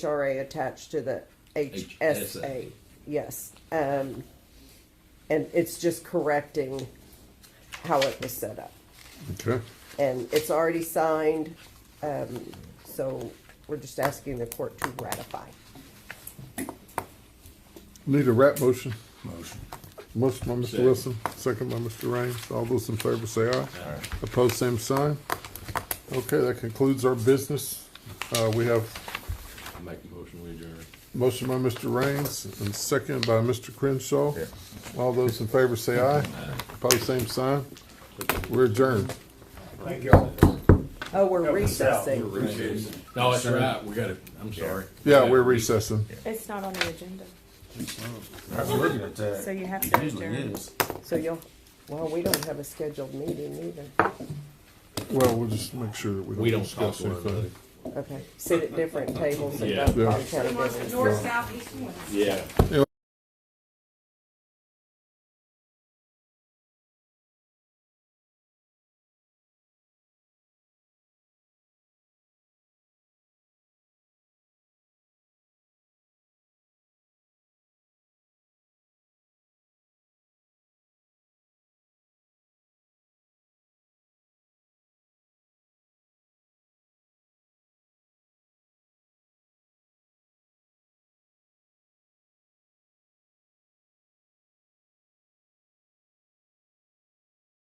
HRA attached to the HSA. HSA. Yes, um, and it's just correcting how it was set up. Okay. And it's already signed, um, so we're just asking the court to ratify. Need a rap motion. Motion. Motion by Mr. Second. Wilson, second by Mr. Raines. All those in favor say aye. Opposed, same sign. Okay, that concludes our business. Uh, we have I Make the motion, we adjourn. motion by Mr. Raines and second by Mr. Crenshaw. Yeah. All those in favor say aye. Opposed, same sign. We're adjourned. Thank y'all. Oh, we're Help us out. recessing. No, that's right, we gotta, I'm sorry. Yeah, we're recessing. It's not on the agenda, I was looking at that. so you have uh, It to usually adjourn. is. So you'll, well, we don't have a scheduled meeting either. Well, we'll just make sure that we don't We don't talk discuss to one another. anything. Okay, sit at different tables and Yeah. don't Yeah. county business. North, south, east, and west. Yeah.